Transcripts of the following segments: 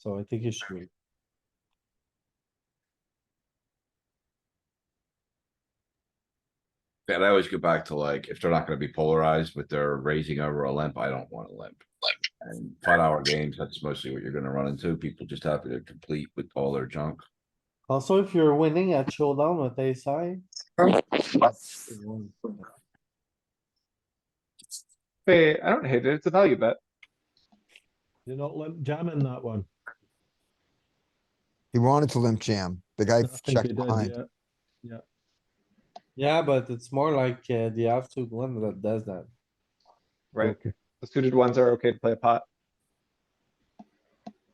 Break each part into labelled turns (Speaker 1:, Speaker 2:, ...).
Speaker 1: So I think you should.
Speaker 2: And I always go back to like, if they're not gonna be polarized, but they're raising over a limp, I don't want a limp. And five hour games, that's mostly what you're gonna run into. People just happy to complete with all their junk.
Speaker 1: Also, if you're winning at showdown with ace high.
Speaker 3: Hey, I don't hate it. It's a value bet.
Speaker 4: You're not limp jamming that one.
Speaker 5: He wanted to limp jam. The guy
Speaker 4: I think
Speaker 5: checked
Speaker 4: you did,
Speaker 5: behind.
Speaker 4: yeah.
Speaker 1: Yeah, but it's more like uh, the offsuit one that does that.
Speaker 3: Right.
Speaker 4: Okay.
Speaker 3: The suited ones are okay to play a pot.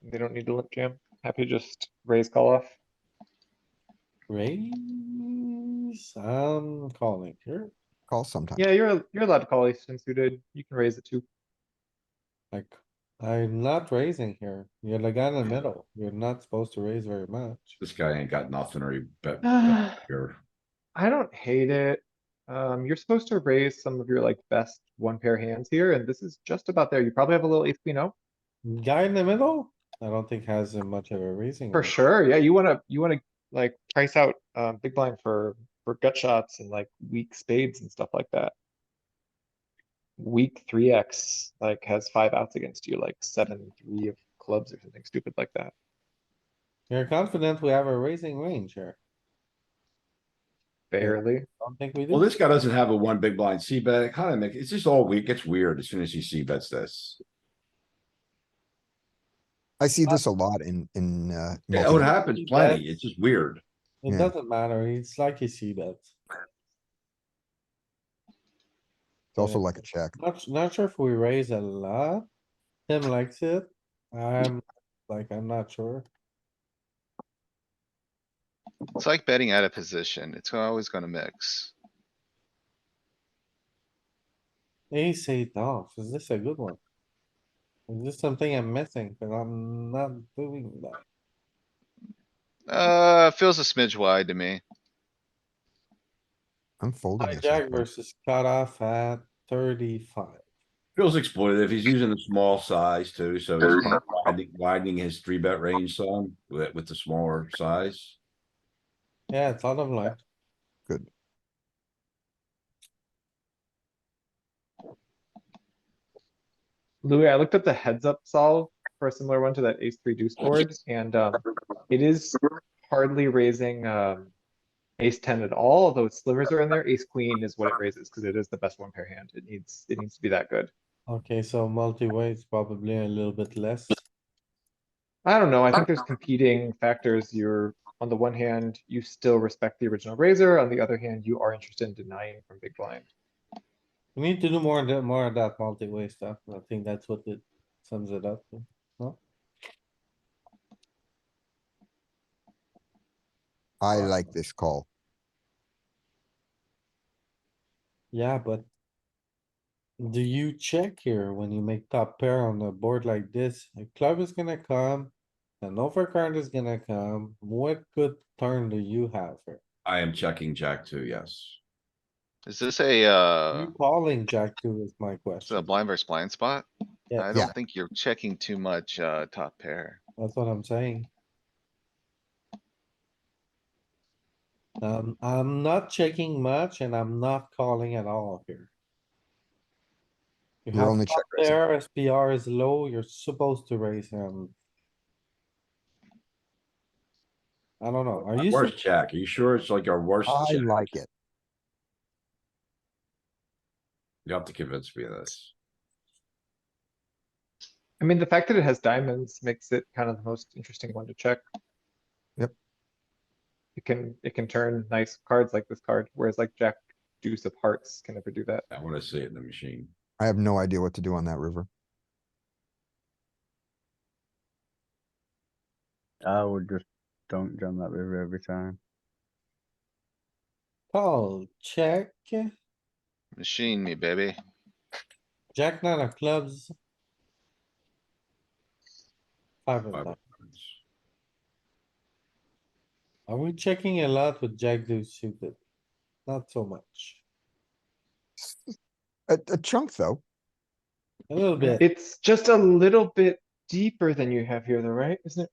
Speaker 3: They don't need to limp jam. Happy to just raise call off.
Speaker 1: Raise, I'm calling here.
Speaker 5: Call sometime.
Speaker 3: Yeah, you're you're allowed to call ace ten suited. You can raise it too.
Speaker 1: Like, I'm not raising here. You're the guy in the middle. You're not supposed to raise very much.
Speaker 2: This guy ain't got nothing or he bet.
Speaker 3: I
Speaker 2: here.
Speaker 3: don't hate it. Um, you're supposed to raise some of your like best one pair hands here, and this is just about there. You probably have a little ace queen O
Speaker 1: Guy in the middle, I don't think has uh, much of a raising.
Speaker 3: for
Speaker 1: range.
Speaker 3: sure. Yeah, you wanna you wanna like price out um, big blind for for gut shots and like weak spades and stuff like that. Weak three X like has five outs against you, like seven three of clubs or something stupid like that.
Speaker 1: You're confident we have a raising range here.
Speaker 3: Barely.
Speaker 1: Don't think we do.
Speaker 2: Well, this guy doesn't have a one big blind C bet. It kinda make, it's just all weak. It's weird as soon as he C bets this.
Speaker 5: I see this a lot in, in, uh.
Speaker 2: Yeah,
Speaker 5: multi-
Speaker 2: Oh, it happens plenty. It's just weird.
Speaker 1: It
Speaker 5: Yeah.
Speaker 1: doesn't matter. It's like you see that.
Speaker 5: It's also like a check.
Speaker 1: Not, not sure if we raise a lot. Tim likes it. I'm like, I'm not sure.
Speaker 6: It's like betting out of position. It's always gonna mix.
Speaker 1: Ace eight off. Is this a good one? Is this something I'm missing? But I'm not doing that.
Speaker 6: Uh, feels a smidge wide to me.
Speaker 5: I'm folding. this
Speaker 1: Hijack
Speaker 5: one.
Speaker 1: versus cutoff at thirty-five.
Speaker 2: Feels exploitative. He's using the small size too, so he's kind of widening- widening his three bet range some with, with the smaller size.
Speaker 1: Yeah, it's out of line.
Speaker 5: Good.
Speaker 3: Louis, I looked up the heads up solve for a similar one to that ace three deuce board, and um, it is hardly raising um. Ace ten at all, although its slivers are in there, ace queen is what it raises, because it is the best one pair hand, it needs, it needs to be that good.
Speaker 1: Okay, so multi-way is probably a little bit less.
Speaker 3: I don't know, I think there's competing factors, you're, on the one hand, you still respect the original raiser, on the other hand, you are interested in denying from big blind.
Speaker 1: We need to do more, of that- more of that multi-way stuff. I think that's what it sums it up to.
Speaker 5: I like this call.
Speaker 1: Yeah, but do you check here when you make top pair on a board like this? A club is gonna come, an overcard is gonna come. What good turn do you have here?
Speaker 2: I am checking jack too, yes.
Speaker 6: Is this a, uh,
Speaker 1: You calling jack two is my
Speaker 6: is it a
Speaker 1: question.
Speaker 6: blind versus blind spot?
Speaker 1: Yeah.
Speaker 6: I
Speaker 5: Yeah.
Speaker 6: don't think you're checking too much, uh, top pair.
Speaker 1: That's what I'm saying. Um, I'm not checking much and I'm not calling at all here. You
Speaker 5: You're
Speaker 1: have
Speaker 5: only
Speaker 1: top
Speaker 5: check raising.
Speaker 1: pair, SPR is low, you're supposed to raise him. I don't know, are you,
Speaker 2: Worst
Speaker 1: sup-
Speaker 2: jack. Are you sure it's like our worst?
Speaker 5: I
Speaker 2: jack?
Speaker 5: like it.
Speaker 2: You have to convince me of this.
Speaker 3: I mean, the fact that it has diamonds makes it kind of the most interesting one to check.
Speaker 5: Yep.
Speaker 3: It can, it can turn nice cards like this card, whereas like Jack deuce of hearts can never do that.
Speaker 2: I wanna see it in the machine.
Speaker 5: I have no idea what to do on that river.
Speaker 7: I would just don't jam that river every time.
Speaker 1: call, check,
Speaker 6: Machine me, baby.
Speaker 1: jack nine of clubs. Five of
Speaker 2: Five
Speaker 1: them,
Speaker 2: of diamonds.
Speaker 1: are we checking a lot with jack deuce suited? Not so much,
Speaker 5: A, a chunk though.
Speaker 1: a little bit.
Speaker 3: It's just a little bit deeper than you have here though, right? Isn't it